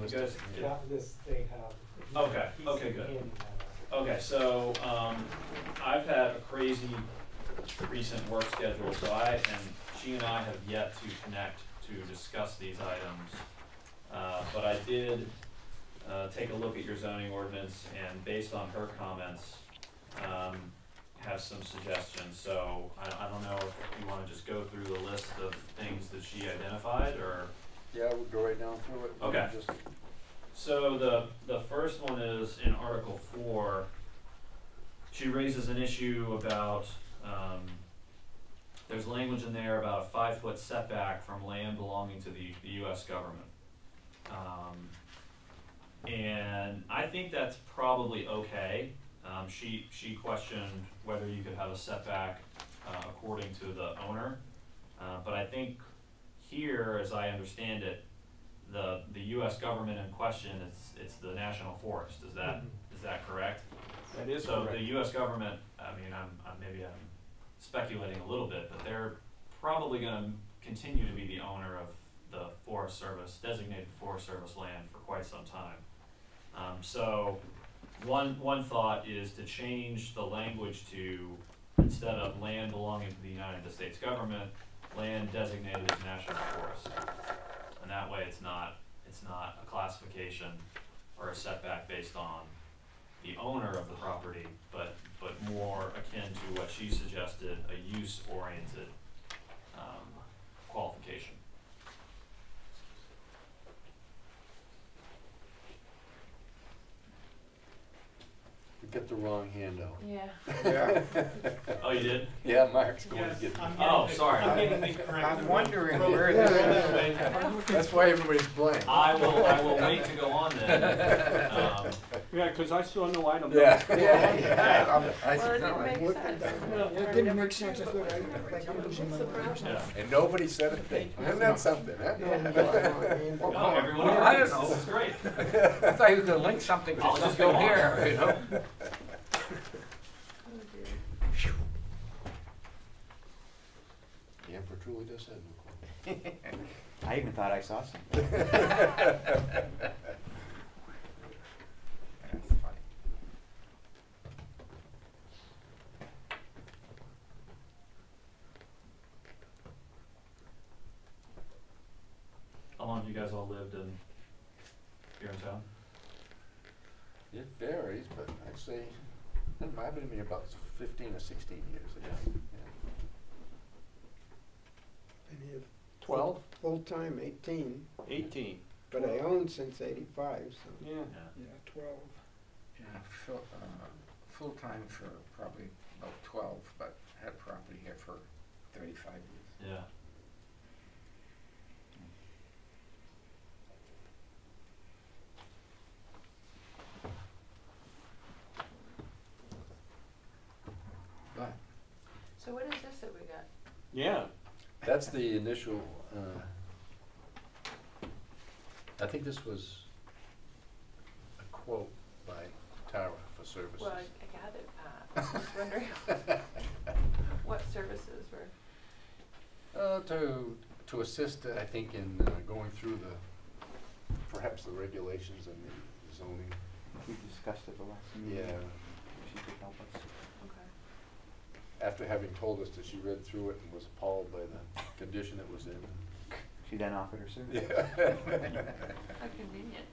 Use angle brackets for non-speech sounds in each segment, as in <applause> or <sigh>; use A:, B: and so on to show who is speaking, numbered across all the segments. A: was
B: You guys-
A: just.
B: yeah.
C: That, this, they have.
B: Okay,
C: he's
B: okay, good.
C: handing that out.
B: Okay, so, um, I've had a crazy recent work schedule, so I, and she and I have yet to connect to discuss these items. Uh, but I did, uh, take a look at your zoning ordinance and based on her comments, um, have some suggestions, so I, I don't know if you wanna just go through the list of things that she identified, or?
D: Yeah, we'll go right down through it. We'll
B: Okay.
D: just-
B: So the the first one is in Article Four. She raises an issue about um, there's language in there about a five foot setback from land belonging to the, the U.S. government, um, and I think that's probably okay. Um, she she questioned whether you could have a setback uh, according to the owner, uh, but I think here, as I understand it, the, the US government in question, it's, it's the national forest, is that, is that correct?
A: That is
B: So
A: correct.
B: the US government, I mean, I'm, I'm, maybe I'm speculating a little bit, but they're probably gonna continue to be the owner of the Forest Service, designated Forest Service land for quite some time. Um, so, one, one thought is to change the language to, instead of land belonging to the United States government, land designated as national forest. And that way, it's not, it's not a classification or a setback based on the owner of the property, but, but more akin to what she suggested, a use-oriented, um, qualification.
D: You get the wrong hand out.
E: Yeah.
B: Oh, you did?
D: Yeah, Mark's going to
C: Yes,
D: get.
C: I'm
B: Oh,
C: getting it-
B: sorry.
C: I'm getting it correct.
A: I'm wondering
C: Roll-
A: where
C: roll
A: this-
C: that way.
D: That's why everybody's blank.
B: I will, I will wait to go on then. Um,
A: Yeah, because I saw no item. number
D: Yeah.
A: four on there.
D: Yeah. I
E: Well,
D: said,
E: it
D: no,
E: didn't
D: I-
E: make sense.
F: It didn't make sense. I thought, I- like, I'm losing my mind.
B: yeah.
D: And nobody said a thing. Isn't that something, huh?
F: No, no, I- I-
B: No, Oh, everyone
G: Well, I
B: agrees,
G: don't know.
B: this is great.
G: I thought you were gonna link something to
B: I'll just
G: something
B: go on.
G: here, you know?
D: The emperor truly does have no clothes.
H: I even thought I saw some.
G: That's funny.
B: How long have you guys all lived in, here in town?
D: It varies, but I'd say, it might have been about fifteen or sixteen years ago. Yeah.
F: Maybe a
A: Twelve,
F: Full-time eighteen,
A: eighteen,
F: but I owned since eighty-five, so.
A: yeah.
B: Yeah.
F: Yeah, twelve.
G: Yeah, full, uh, full-time for probably about twelve, but had property here for thirty-five years.
B: Yeah.
G: But
E: So what is this that we got?
A: Yeah,
D: That's the initial, uh, I think this was a quote by Tara for services.
E: Well, I I gathered that. <laughs> I was just wondering <laughs> what services were,
D: Uh, to, to assist, uh, I think, in uh, going through the, perhaps the regulations and the zoning.
H: We discussed it the last
G: Mm-hmm.
H: meeting.
D: Yeah,
H: She could help us.
E: okay.
D: after having told us that she read through it and was appalled by the condition it was in.
H: She then offered her service.
D: Yeah.
E: How convenient.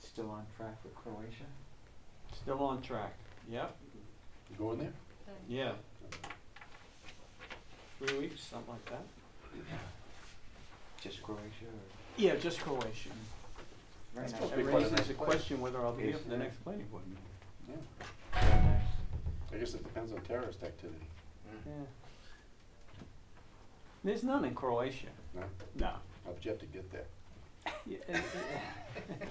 H: Still on track with Croatia.
A: still on track, yep,
D: <laughs> You Going there?
A: yeah. Three weeks, something like that.
H: Just Croatia or?
A: Yeah, just Croatia.
H: Very nice.
D: That's supposed
A: It
D: be quite a
A: raises
D: nice
A: a
D: place.
A: question whether I'll be here
H: Yes,
A: for the
H: it
A: next
H: is.
A: planning board meeting.
D: Yeah.
H: Very nice.
D: I guess it depends on terrorist activity.
A: Yeah. There's none in Croatia.
D: No?
A: No.
D: How'd you have to get there?
A: Yeah, it- it-